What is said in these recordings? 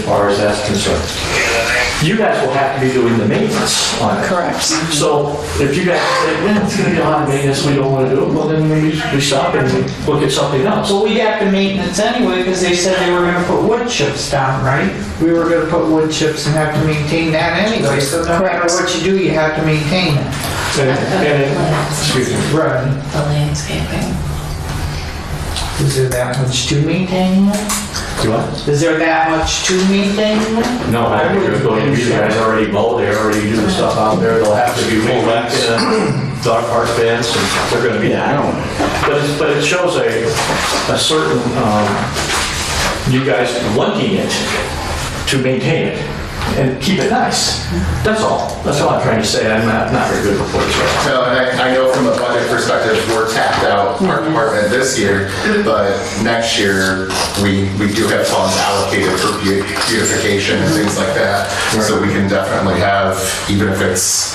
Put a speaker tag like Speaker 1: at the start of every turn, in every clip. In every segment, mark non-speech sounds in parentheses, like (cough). Speaker 1: far as that's concerned. You guys will have to be doing the maintenance on it.
Speaker 2: Correct.
Speaker 1: So if you guys say, yeah, it's gonna be a lot of maintenance, we don't wanna do it, well, then we, we stop and we look at something else.
Speaker 3: So we got the maintenance anyway, because they said they were gonna put wood chips down, right? We were gonna put wood chips and have to maintain that anyway, so no matter
Speaker 2: Correct.
Speaker 3: what you do, you have to maintain it.
Speaker 1: And, and, it- excuse me.
Speaker 3: Right.
Speaker 4: The landscaping.
Speaker 3: Is there that much to maintain?
Speaker 1: You what?
Speaker 3: Is there that much to maintain?
Speaker 1: No, I think you're going, you guys already mow, they already do the stuff out there, they'll have to be mowed back in a dog park fence, and they're gonna be down. But it's, but it shows a, a certain, um, you guys wanting it to maintain it and keep it nice. That's all, that's all I'm trying to say, I'm not, not very good with words right now.
Speaker 5: No, and I, I know from a budget perspective, we're tapped out, our department this year, but next year, we, we do have funds allocated for beau- beautification and things like that. So we can definitely have, even if it's,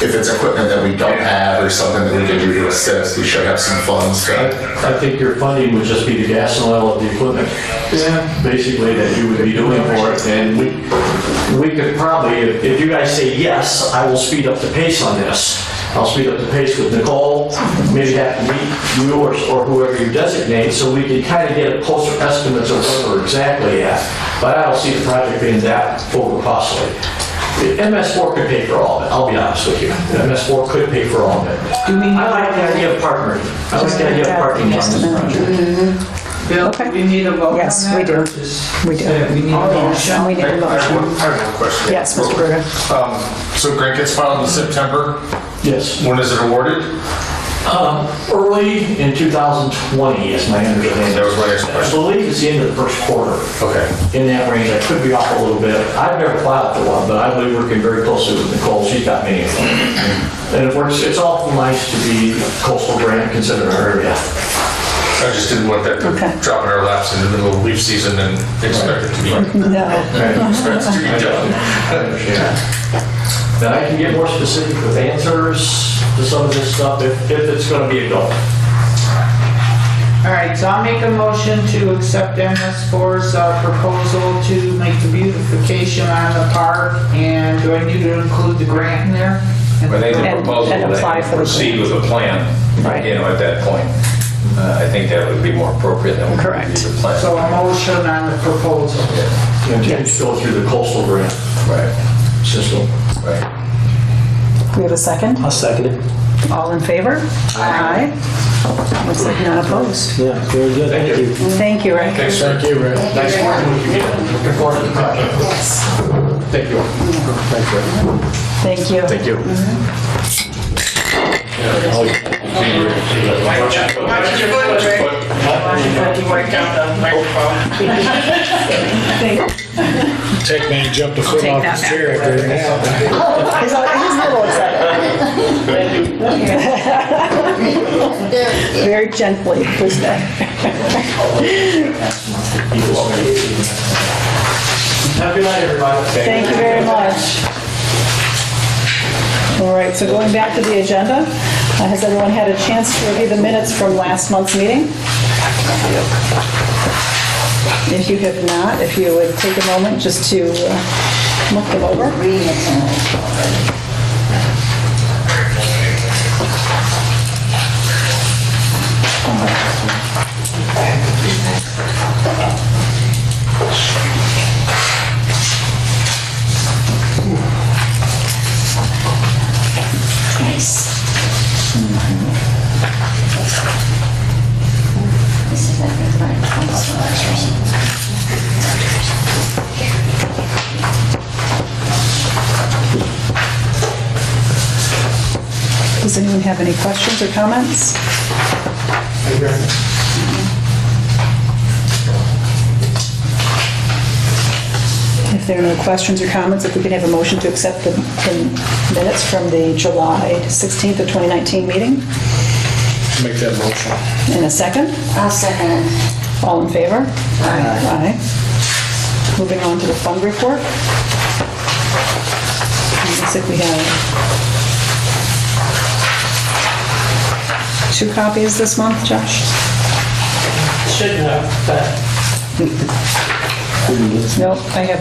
Speaker 5: if it's equipment that we don't have or something that we can do to assist, we should have some funds to.
Speaker 1: I I think your funding would just be the gas and oil of the equipment. Yeah. Basically, that you would be doing for it, and we, we could probably, if if you guys say yes, I will speed up the pace on this. I'll speed up the pace with Nicole, maybe have to meet you or or whoever you designate, so we can kind of get closer estimates of what we're exactly at. But I don't see the project being that over costly. MS4 could pay for all of it, I'll be honest with you. MS4 could pay for all of it.
Speaker 3: Do we,
Speaker 1: I like the idea of partnering. I like the idea of partnering on this project.
Speaker 3: Bill, do we need a vote on that?
Speaker 2: Yes, we do. We do.
Speaker 3: Yeah, We need a
Speaker 1: Oh,
Speaker 2: And
Speaker 3: motion.
Speaker 2: we need a motion.
Speaker 5: have a question. Um,
Speaker 2: Yes, Mr. Bruder.
Speaker 5: So grant gets filed in September,
Speaker 1: Yes.
Speaker 5: when is it awarded?
Speaker 1: Early in 2020 is my understanding.
Speaker 5: That was my next question.
Speaker 1: I believe it's the end of the first quarter.
Speaker 5: Okay.
Speaker 1: In that range, I could be off a little bit. I've never filed for one, but I've been working very closely with Nicole, she's got many of them. And it works, it's awful nice to be coastal grant considered our area.
Speaker 6: I just didn't want that
Speaker 2: Okay.
Speaker 6: to drop in our laps in the middle of leaf season and expect it to be,
Speaker 2: No.
Speaker 6: expect it to be done.
Speaker 1: I understand. Then I can get more specific with answers to some of this stuff if if it's going to be a goal.
Speaker 3: All right, so I'll make a motion to accept MS4's uh, proposal to make the beautification on the park, and do I need to include the grant in there?
Speaker 7: I think the
Speaker 2: And- and
Speaker 7: proposal
Speaker 2: apply for
Speaker 7: that
Speaker 2: the
Speaker 7: proceed with a plan,
Speaker 2: Right.
Speaker 7: you know, at that point. Uh, I think that would be more appropriate than we
Speaker 2: Correct.
Speaker 7: review the plan.
Speaker 3: So a motion on the proposal.
Speaker 1: And just go through the coastal grant
Speaker 7: Right,
Speaker 1: system.
Speaker 7: right.
Speaker 2: We have a second?
Speaker 8: I'll second it.
Speaker 2: All in favor? Aye. Looks like none opposed.
Speaker 8: Yeah, very good. Thank you.
Speaker 2: Thank you, Rick.
Speaker 1: Thank you, Rick. Nice working with you again. Looking forward to the project. Thank you.
Speaker 2: Thank you.
Speaker 1: Thank you.
Speaker 6: Tech man jumped a foot
Speaker 2: Take
Speaker 6: off
Speaker 2: that
Speaker 6: his chair after an hour.
Speaker 2: He's a he's a little excited. (laughs) Very gently, please.
Speaker 1: Have a good night, everybody.
Speaker 2: Thank you very much. All right, so going back to the agenda, uh, has everyone had a chance to review the minutes from last month's meeting? If you have not, if you would take a moment just to uh, look them over.
Speaker 4: This is like the right place for us.
Speaker 2: Does anyone have any questions or comments? If there are no questions or comments, if we could have a motion to accept the the minutes from the July 16th of 2019 meeting? Make that motion. In a second?
Speaker 4: I'll second it.
Speaker 2: All in favor? Aye. Moving on to the fund report. It Looks like we have two copies this month, Josh?
Speaker 3: Shouldn't have, but
Speaker 2: Nope, I have